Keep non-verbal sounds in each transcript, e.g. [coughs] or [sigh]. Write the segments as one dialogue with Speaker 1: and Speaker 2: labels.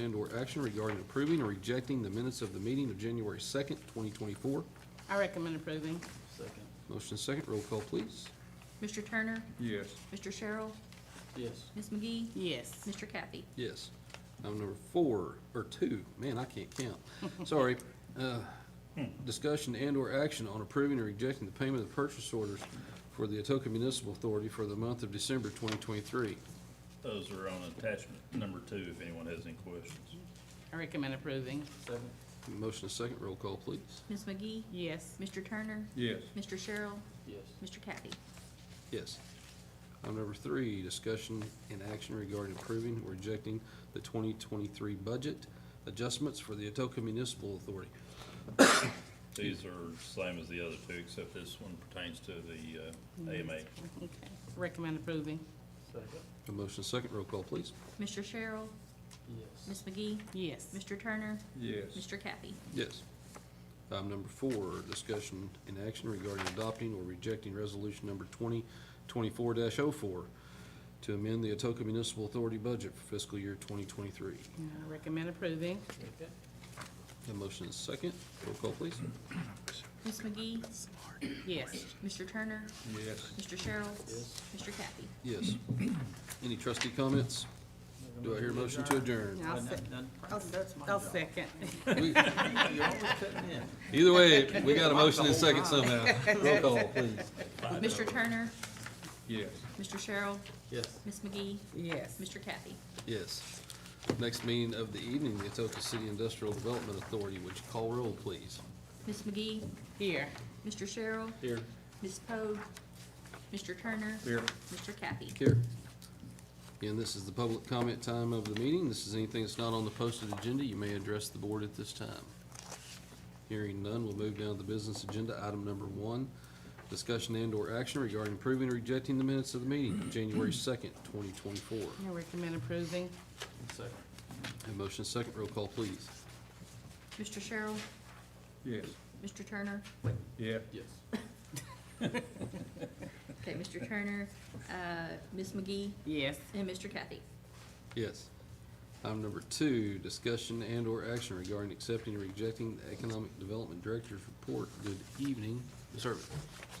Speaker 1: and/or action regarding approving or rejecting the minutes of the meeting of January 2nd, 2024.
Speaker 2: I recommend approving.
Speaker 3: Second.
Speaker 1: Motion is second, roll call, please.
Speaker 4: Mr. Turner,
Speaker 3: Yes.
Speaker 4: Mr. Sherrill,
Speaker 3: Yes.
Speaker 4: Ms. McGee,
Speaker 2: Yes.
Speaker 4: Mr. Kathy.
Speaker 1: Yes. Item number four, or two, man, I can't count. Sorry. Uh, Discussion and/or action on approving or rejecting the payment of purchase orders for the Atoka Municipal Authority for the month of December 2023.
Speaker 5: Those are on attachment number two, if anyone has any questions.
Speaker 2: I recommend approving.
Speaker 3: Second.
Speaker 1: Motion is second, roll call, please.
Speaker 4: Ms. McGee,
Speaker 2: Yes.
Speaker 4: Mr. Turner,
Speaker 3: Yes.
Speaker 4: Mr. Sherrill,
Speaker 3: Yes.
Speaker 4: Mr. Kathy.
Speaker 1: Yes. Item number three, discussion and action regarding approving or rejecting the 2023 budget adjustments for the Atoka Municipal Authority.
Speaker 5: These are same as the other two, except this one pertains to the uh, AMA.
Speaker 2: Okay. Recommend approving.
Speaker 3: Second.
Speaker 1: A motion is second, roll call, please.
Speaker 4: Mr. Sherrill,
Speaker 3: Yes.
Speaker 4: Ms. McGee,
Speaker 2: Yes.
Speaker 4: Mr. Turner,
Speaker 3: Yes.
Speaker 4: Mr. Kathy.
Speaker 1: Yes. Item number four, discussion and action regarding adopting or rejecting resolution number twenty twenty-four 4 to amend the Atoka Municipal Authority budget for fiscal year twenty twenty-three.
Speaker 2: I Recommend approving.
Speaker 3: Second.
Speaker 1: A motion is second, roll call, please.
Speaker 4: Ms. McGee,
Speaker 2: Yes.
Speaker 4: Mr. Turner,
Speaker 3: Yes.
Speaker 4: Mr. Sherrill,
Speaker 3: Yes.
Speaker 4: Mr. Kathy.
Speaker 1: Yes. [clears throat] Any trustee comments? Do I hear a motion to adjourn?
Speaker 2: I'll se- I'll, I'll second. [laughs]
Speaker 1: We-
Speaker 3: You're always cutting in.
Speaker 1: Either way, we got a motion and second somehow. Roll call, please.
Speaker 4: Mr. Turner,
Speaker 3: Yes.
Speaker 4: Mr. Sherrill,
Speaker 3: Yes.
Speaker 4: Ms. McGee,
Speaker 2: Yes.
Speaker 4: Mr. Kathy.
Speaker 1: Next meeting of the evening, the Atoka City Industrial Development Authority, would you call roll, please?
Speaker 4: Ms. McGee,
Speaker 2: Here.
Speaker 4: Mr. Sherrill,
Speaker 1: Here.
Speaker 4: Ms. Pogue, Mr. Turner,
Speaker 3: Here.
Speaker 4: Mr. Kathy.
Speaker 1: Here. Again, this is the public comment time of the meeting. This is anything that's not on the posted agenda. You may address the board at this time. Hearing none, we'll move down to the business agenda, item number one. Discussion and/or action regarding approving or rejecting the minutes of the meeting of January second, twenty twenty-four.
Speaker 2: I recommend approving.
Speaker 3: Second.
Speaker 1: Have motion second, roll call, please.
Speaker 4: Mr. Sherrill,
Speaker 3: Yes.
Speaker 4: Mr. Turner,
Speaker 3: Yeah. Yes.
Speaker 4: Okay, Mr. Turner, uh, Ms. McGee,
Speaker 2: Yes.
Speaker 4: and Mr. Kathy.
Speaker 1: Yes. Item number two, discussion and/or action regarding accepting or rejecting the Economic Development Director's report. Good evening, Ms. Irvin.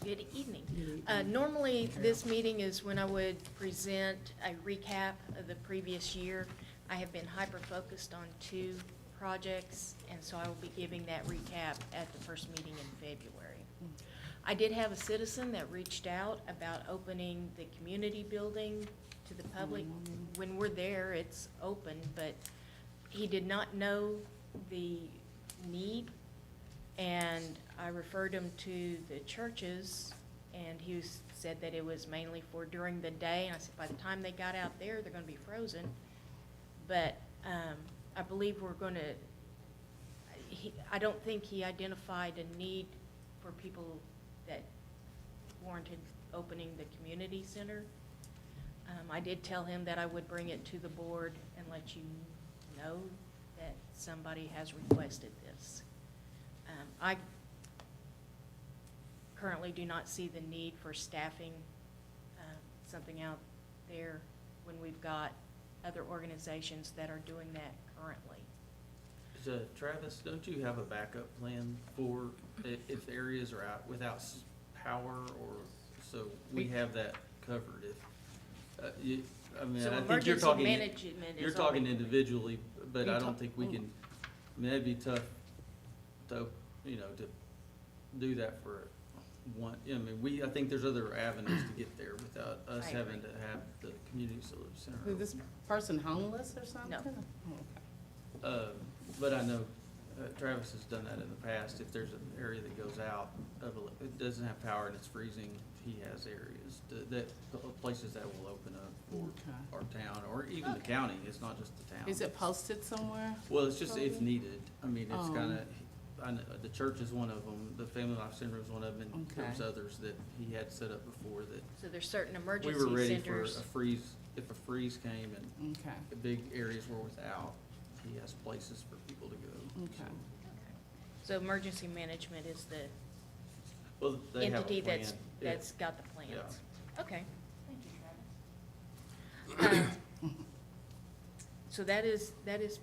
Speaker 6: Good evening. Uh, Normally, this meeting is when I would present a recap of the previous year. I have been hyper-focused on two projects, and so I will be giving that recap at the first meeting in February. I did have a citizen that reached out about opening the community building to the public. When we're there, it's open, but he did not know the need and I referred him to the churches, and he was, said that it was mainly for during the day, and I said, by the time they got out there, they're gonna be frozen. But, um, I believe we're gonna, he, I don't think he identified a need for people that warranted opening the community center. Um, I did tell him that I would bring it to the board and let you know that somebody has requested this. Um, I currently do not see the need for staffing, um, something out there when we've got other organizations that are doing that currently.
Speaker 3: So Travis, don't you have a backup plan for i- if areas are out without s- power or, so we have that covered if, uh, you, I mean,
Speaker 6: So
Speaker 3: I think you're talking.
Speaker 6: Emergency management is.
Speaker 3: You're
Speaker 6: all
Speaker 3: talking
Speaker 6: we-
Speaker 3: individually, but
Speaker 2: You're
Speaker 3: I
Speaker 2: talk-
Speaker 3: don't think we
Speaker 2: mm.
Speaker 3: can, I mean, that'd be tough to, you know, to do that for one, I mean, we, I think there's other avenues to get there without us
Speaker 6: I
Speaker 3: having to have the community solution
Speaker 2: Is
Speaker 3: center.
Speaker 2: this person homeless or something? Okay.
Speaker 3: Uh, but I know uh, Travis has done that in the past, if there's an area that goes out of, ele- it doesn't have power and it's freezing, he has areas to- that, places that will open up
Speaker 2: Okay.
Speaker 3: for our town, or even the county, it's not just the town.
Speaker 2: Is it posted somewhere?
Speaker 3: Well, it's just if needed. I mean, it's
Speaker 2: Oh.
Speaker 3: kinda, I know, the church is one of them, the Family Life Center is one of them, and there was
Speaker 2: Okay.
Speaker 3: others that he had set up before that
Speaker 6: So there's certain
Speaker 3: we were
Speaker 6: emergency
Speaker 3: ready for a
Speaker 6: centers.
Speaker 3: freeze, if a freeze came and
Speaker 2: Okay.
Speaker 3: the big areas were without, he has places for people to go.
Speaker 2: Okay.
Speaker 6: Okay. So emergency management is the
Speaker 3: Well, they have a
Speaker 6: entity that's,
Speaker 3: plan. Yeah.
Speaker 6: that's got the plans. Okay. [coughs] Thank you, Travis. So that is, that is